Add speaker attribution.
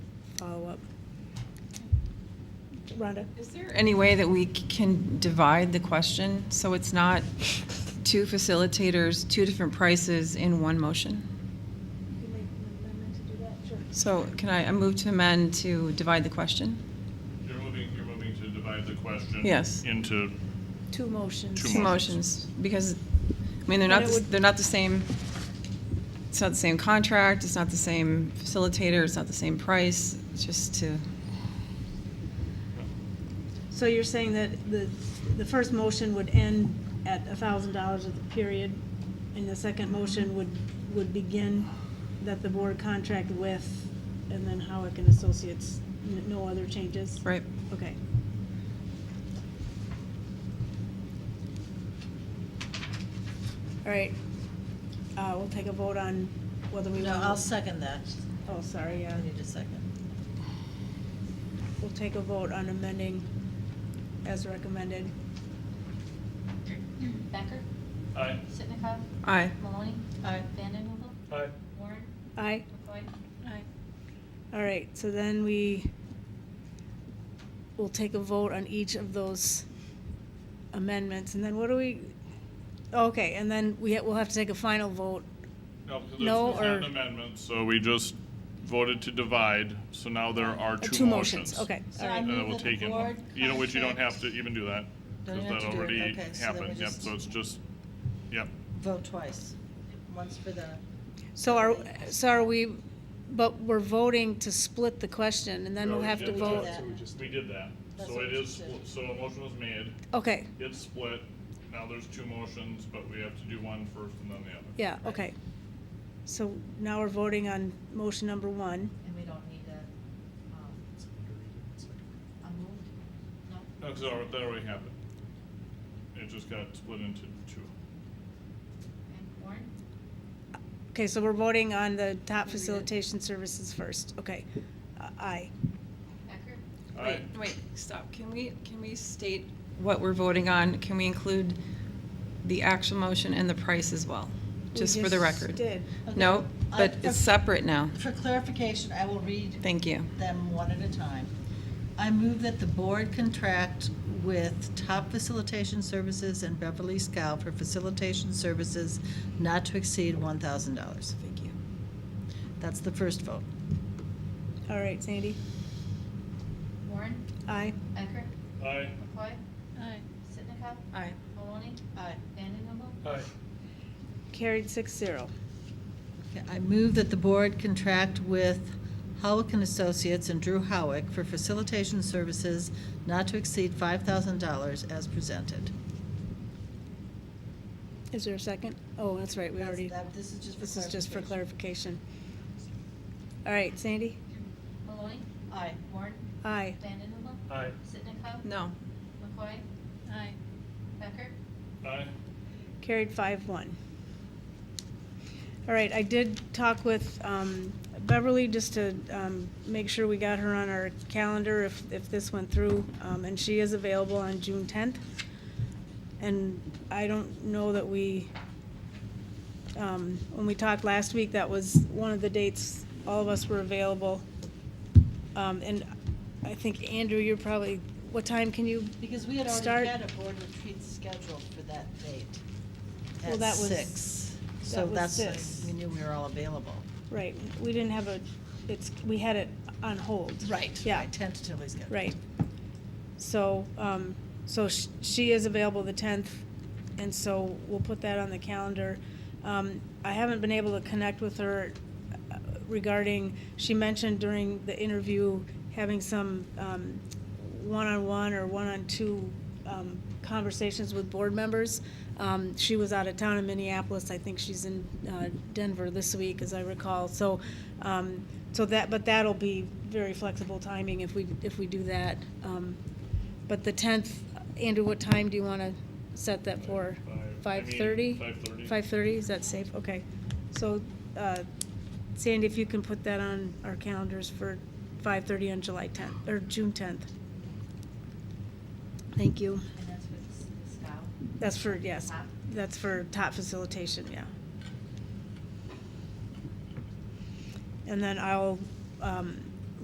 Speaker 1: follow-up. Rhonda?
Speaker 2: Is there any way that we c- can divide the question so it's not two facilitators, two different prices in one motion? So can I, I move to amend to divide the question?
Speaker 3: You're moving, you're moving to divide the question.
Speaker 2: Yes.
Speaker 3: Into,
Speaker 1: Two motions.
Speaker 3: Two
Speaker 2: Two
Speaker 3: motions.
Speaker 2: motions, because, I mean, they're not,
Speaker 1: But it
Speaker 2: the s-
Speaker 1: would-
Speaker 2: they're not the same, it's not the same contract, it's not the same facilitator, it's not the same price, it's just to,
Speaker 1: So you're saying that the, the first motion would end at a thousand dollars at the period, and the second motion would, would begin that the board contract with, and then Howick and Associates, n- no other changes?
Speaker 2: right?
Speaker 1: Okay. All right, uh, we'll take a vote on whether we
Speaker 4: No,
Speaker 1: want.
Speaker 4: I'll second that.
Speaker 1: Oh, sorry, yeah.
Speaker 4: I need a second.
Speaker 1: We'll take a vote on amending as recommended.
Speaker 5: Becker?
Speaker 3: aye.
Speaker 5: Sitnikov?
Speaker 2: Aye.
Speaker 5: Maloney?
Speaker 4: Aye.
Speaker 5: Vandenhuvel?
Speaker 3: Aye.
Speaker 5: Warren?
Speaker 1: Aye.
Speaker 5: McCoy?
Speaker 4: Aye.
Speaker 1: All right, so then we will take a vote on each of those amendments, and then what do we? Okay, and then we, ha- we'll have to take a final vote.
Speaker 3: No, because
Speaker 1: No,
Speaker 3: it's not
Speaker 1: or-
Speaker 3: an amendment, so we just voted to divide, so now there are
Speaker 1: Uh,
Speaker 3: two motions.
Speaker 1: Okay, all
Speaker 4: So
Speaker 3: And
Speaker 1: right,
Speaker 4: I'm-
Speaker 3: then
Speaker 4: move
Speaker 3: we'll
Speaker 4: that the
Speaker 3: take in
Speaker 4: board
Speaker 3: one. You know, which you don't have
Speaker 4: contract-
Speaker 3: to even do that,
Speaker 4: Don't
Speaker 3: because
Speaker 4: have
Speaker 3: that
Speaker 4: to do it.
Speaker 3: already
Speaker 4: Okay, so then
Speaker 3: happened,
Speaker 4: we
Speaker 3: yep,
Speaker 4: just-
Speaker 3: so it's just, yep.
Speaker 4: Vote twice. Once for the,
Speaker 1: so are, so are we, but we're voting to split the question, and then we'll have to
Speaker 3: We
Speaker 1: vote.
Speaker 3: did that.
Speaker 4: vote.
Speaker 3: We did that,
Speaker 4: That's
Speaker 3: so
Speaker 4: what
Speaker 3: it
Speaker 4: you
Speaker 3: is,
Speaker 4: said.
Speaker 3: split- so a motion was made,
Speaker 1: Okay,
Speaker 3: it's split, now there's two motions, but we have to do one first and then the other.
Speaker 1: yeah, okay. So now we're voting on motion number one.
Speaker 5: And we don't need a, um, a move? No?
Speaker 3: No, because that alre- that already happened. It just got split into two.
Speaker 5: And Warren?
Speaker 1: Okay, so we're voting on the top
Speaker 4: We did.
Speaker 1: facilitation services first, okay. Uh, Aye.
Speaker 5: Becker?
Speaker 3: Aye.
Speaker 2: Wait, wait, stop. Can we, can we state what we're voting on? Can we include the actual motion and the price as well?
Speaker 1: We
Speaker 2: Just for the record?
Speaker 1: Did.
Speaker 2: No,
Speaker 4: Okay.
Speaker 2: but
Speaker 4: I-
Speaker 2: it's separate now.
Speaker 4: for clarification, I will read
Speaker 2: Thank you.
Speaker 4: them one at a time. I move that the board contract with Top Facilitation Services and Beverly Scow for facilitation services not to exceed $1,000.
Speaker 2: Thank you.
Speaker 4: That's the first vote.
Speaker 1: All right, Sandy?
Speaker 5: Warren?
Speaker 1: Aye.
Speaker 5: Becker?
Speaker 3: Aye.
Speaker 5: McCoy?
Speaker 4: Aye.
Speaker 5: Sitnikov?
Speaker 2: Aye.
Speaker 5: Maloney?
Speaker 4: Aye.
Speaker 5: Vandenhuvel?
Speaker 3: Aye.
Speaker 1: Carried six zero.
Speaker 4: Okay, I move that the board contract with Howick and Associates and Drew Howick for facilitation services not to exceed $5,000 as presented.
Speaker 1: Is there a second? Oh, that's right, we already,
Speaker 4: That's- that- This is just for
Speaker 1: this is just for
Speaker 4: clarification.
Speaker 1: clarification. All right, Sandy?
Speaker 5: Maloney?
Speaker 4: Aye.
Speaker 5: Warren?
Speaker 1: Aye.
Speaker 5: Vandenhuvel?
Speaker 3: Aye.
Speaker 5: Sitnikov?
Speaker 2: No.
Speaker 5: McCoy?
Speaker 4: Aye.
Speaker 5: Becker?
Speaker 3: Aye.
Speaker 1: Carried five one. All right, I did talk with um, Beverly just to um, make sure we got her on our calendar if, if this went through, um, and she is available on June tenth. And I don't know that we, um, when we talked last week, that was one of the dates all of us were available. Um, And I think, Andrew, you're probably, what time can you?
Speaker 4: Because we had
Speaker 1: Start-
Speaker 4: already had a board retreat scheduled for that date.
Speaker 1: Well,
Speaker 4: at
Speaker 1: that was-
Speaker 4: six.
Speaker 1: that
Speaker 4: So
Speaker 1: was
Speaker 4: that's, when
Speaker 1: six.
Speaker 4: we knew we were all available.
Speaker 1: Right, we didn't have a, it's, we had it on hold. Yeah,
Speaker 4: Tentatively scheduled.
Speaker 1: right. So, um, so sh- she is available the tenth, and so we'll put that on the calendar. Um, I haven't been able to connect with her uh, regarding, she mentioned during the interview having some, um, one-on-one or one-on-two, um, conversations with board members. Um, she was out of town in Minneapolis, I think she's in, uh, Denver this week, as I recall, so, um, so that, but that'll be very flexible timing if we, if we do that. Um, But the tenth, Andrew, what time do you wanna set that for?
Speaker 3: Five- I
Speaker 1: Five
Speaker 3: mean,
Speaker 1: thirty?
Speaker 3: 5:30.
Speaker 1: Five thirty, is that safe? Okay. So, uh, Sandy, if you can put that on our calendars for five thirty on July tenth, or June tenth. Thank you.
Speaker 5: And that's with Scow?
Speaker 1: That's for, yes,
Speaker 5: Top.
Speaker 1: that's for top facilitation, yeah. And then I'll, um,